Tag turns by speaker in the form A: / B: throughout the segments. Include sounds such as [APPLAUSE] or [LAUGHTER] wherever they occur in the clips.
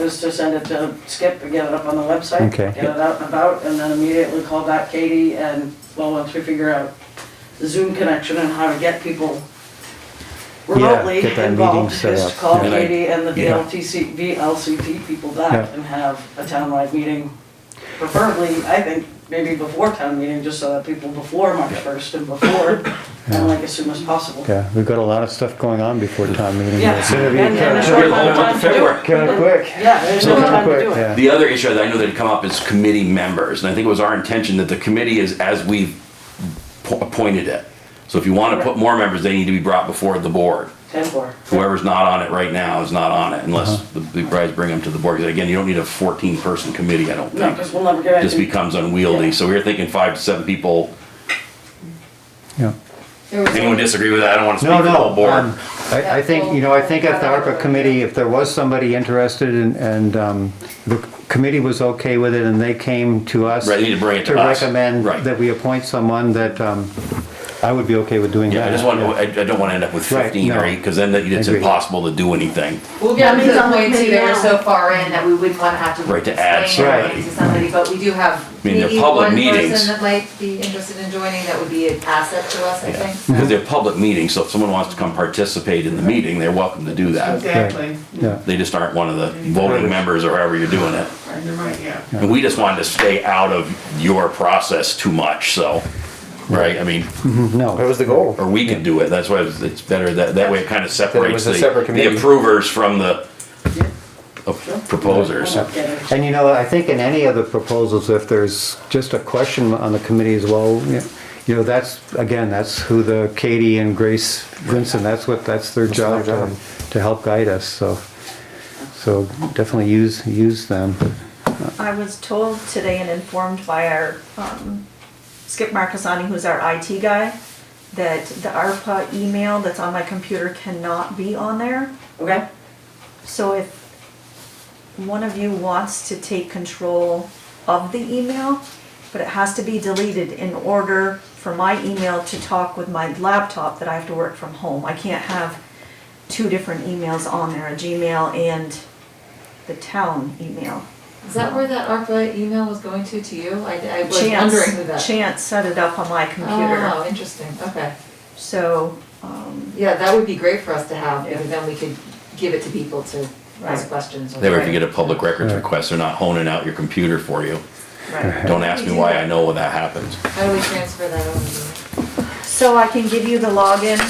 A: is to send it to Skip and get it up on the website.
B: Okay.
A: Get it out and about, and then immediately call back Katie and, well, once we figure out the Zoom connection and how to get people remotely
B: get that meeting
A: involved,
B: set
A: is
B: up.
A: to call
B: Yeah.
A: Katie and the
B: Yeah.
A: VLTC, VLCT people back
B: Yeah.
A: and have a townwide meeting. Preferably, I think, maybe before town meeting, just so that people before March first and before,
B: Yeah.
A: and like as soon as possible.
B: Yeah, we've got a lot of stuff going on before town meeting.
A: Yeah,
B: It's-
A: and, and there's no
C: It's gonna be a whole
A: time
C: month
A: to
C: of
A: do
C: February.
A: it.
B: Kinda quick.
A: Yeah, there's no
B: Kinda
A: time to
B: quick,
A: do it.
B: yeah.
C: The other issue that I know that had come up is committee members, and I think it was our intention that the committee is as we've po- appointed it. So if you want to put more members, they need to be brought before the board.
A: Ten four.
C: Whoever's not on it right now is not on it
B: Uh-huh.
C: unless the the guys bring them to the board. 'Cause Again, you don't need a fourteen person committee, I don't
A: No,
C: think.
A: because we'll never get
C: Just
A: anything.
C: becomes unwieldy. So we were thinking five to seven people.
B: Yeah.
D: There was
C: Anyone
D: only-
C: disagree with that? I don't want to speak
B: No,
C: for the whole
B: no, um,
C: board.
B: I, I think, you know, I think at the ARPA committee, if there was somebody interested and, and, um, the committee was okay with it and they came to us.
C: Right, they need to bring it to us.
B: recommend
C: Right.
B: that we appoint someone that, um, I would be okay with doing that.
C: Yeah, I just want, I, I don't want to end up with
B: Right,
C: fifteen
B: no.
C: or eight, because then that- it's
B: Agreed.
C: impossible to do anything.
D: We'll get
E: Yeah,
D: to the
E: because
D: point too,
E: maybe
D: they were
E: now-
D: so far in that we wouldn't wanna have to.
C: Right, to add
D: explain everything
B: somebody.
D: To somebody, but we do have
C: mean, they're
D: maybe
C: public
D: one
C: meetings.
D: person that might be interested in joining, that would be an asset to us, I think. so.
C: Because they're public meetings, so if someone wants to come participate in the meeting, they're welcome to do that.
E: Exactly.
B: Yeah,
C: They just aren't one of the voting members or however you're doing it.
E: Right, You're right, yeah.
C: And we just wanted to stay out of your process too much, so, right? I mean,
B: no.
F: That was the goal.
C: or we can do it, that's why it's it's better, that, that way it kind of separates
F: was
C: the
F: a separate
C: the
F: committee.
C: approvers from the of proposers.
A: Yeah.
B: And you know, I think in any of the proposals, if there's just a question on the committee as well, you know, that's, again, that's who the Katie and Grace Vincent, that's what, that's their job
F: their
B: to
F: job.
B: to help guide us, so. So definitely use, use them.
G: I was told today and informed by our, um, Skip Marcassani, who's our IT guy, that the ARPA email that's on my computer cannot be on there.
A: Okay,
G: So if one of you wants to take control of the email, but it has to be deleted in order for my email to talk with my laptop that I have to work from home. I can't have two different emails on there, a Gmail and the town email.
D: Is that where that ARPA email was going to, to you? I, I was wondering who that.
G: Chance, Chance set it up on my
D: Oh,
G: computer,
D: interesting, okay.
G: so, um,
D: Yeah, that would be great for us to have,
A: Yeah.
D: because then we could give it to people to ask
G: Right.
D: questions. or-
C: They were to get a public records
B: Right.
C: request, they're not honing out your computer for you.
G: right.
C: Don't ask me why I know when that happens.
D: How do we transfer that over?
G: So I can give you the login,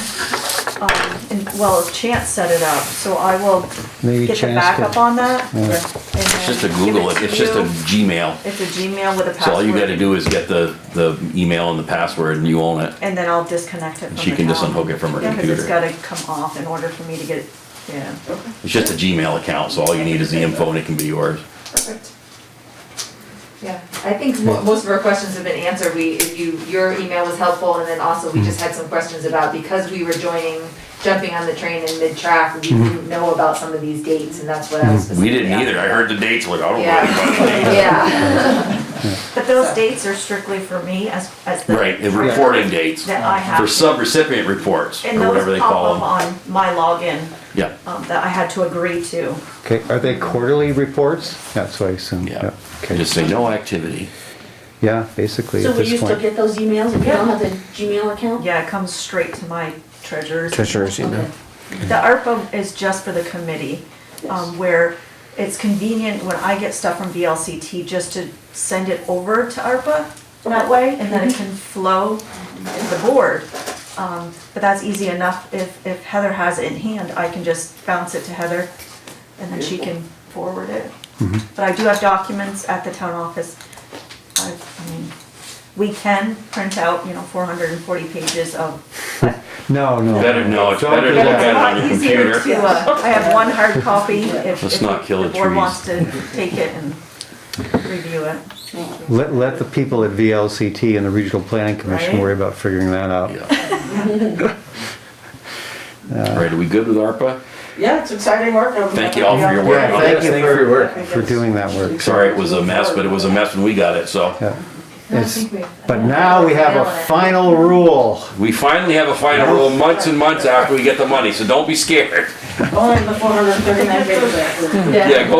G: um, and, well, Chance set it up, so I will
B: Maybe
G: get the
B: Chance could-
G: backup on that. and
B: Yeah.
C: It's just a
G: then give
C: Google,
G: it
C: it.
G: to
C: it's just a
G: you.
C: Gmail.
G: It's a Gmail with a password.
C: So all you gotta do is get the, the email and the password and you own it.
G: And then I'll disconnect it from the
C: She can just
G: town.
C: unhook it from her
G: Yeah, 'cause it's
C: computer.
G: gotta come off in order for me to get, it. yeah.
C: It's just a Gmail account, so all you need is the info and it can be yours.
D: Perfect. Yeah, I think mo- most of our questions have been answered, we, if you, your email was helpful, and then also
B: Hmm.
D: we just had some questions about, because we were joining, jumping on the train in mid-track, we
B: Hmm.
D: didn't know about some of these dates, and that's what I
C: We
D: was specifically.
C: didn't either, I
D: asking.
C: heard the dates, like, I don't know anybody.
D: Yeah,
G: [LAUGHS]
D: yeah.
G: But those dates are strictly for me as, as the.
C: Right, the reporting dates,
G: That I have.
C: for
G: to-
C: sub-recipient reports, or
G: And those
C: whatever they
G: pop
C: call
G: up
C: them.
G: on my login,
C: Yeah,
G: um, that I had to agree to.
B: Okay, are they quarterly reports? That's what I assume.
C: yeah,
B: Okay,
C: just say no activity.
B: yeah, basically
H: So
B: at
H: will you
B: this
H: still
B: point.
H: get those emails if you don't have the Gmail account?
G: Yeah, it comes straight to my treasurer's.
F: Treasurer's email.
G: The ARPA is just for the committee, um, where it's convenient when I get stuff from VLCT just to send it over to ARPA that way, and then it can flow to the board. Um, but that's easy enough, if, if Heather has it in hand, I can just bounce it to Heather, and then she can forward it. But I do have documents at the town office, I, I mean, we can print out, you know, four hundred and forty pages of
B: No, no.
C: Better, no, it's better to look
G: yeah, it's a
C: at it on
G: lot
C: your
G: easier
C: computer.
G: to, uh, I have one hard copy if,
C: Let's
G: if
C: not kill
G: the
C: the
G: board
C: trees.
G: wants to take it and review it.
B: Let, let the people at VLCT and the Regional Planning Commission
G: Right.
B: worry about figuring that out.
C: Yeah. All right, are we good with ARPA?
A: yeah, it's exciting work. I'm
C: Thank you all for your
A: happy
C: work.
B: Yeah,
C: on
B: thank
C: it.
B: you
F: Thank you for your
B: for,
F: work.
B: for doing that work.
C: Sorry, it was a mess, but it was a mess when we got it, so.
B: Yeah.
D: I don't
B: It's-
D: think we- I
B: But
D: don't
B: now
D: think
B: we have
D: nailed
B: a
D: it.
B: final rule.
C: We finally have a final rule months and months after we get the money, so don't be scared.
A: Only the four hundred and thirty-nine pages.
C: Yeah, go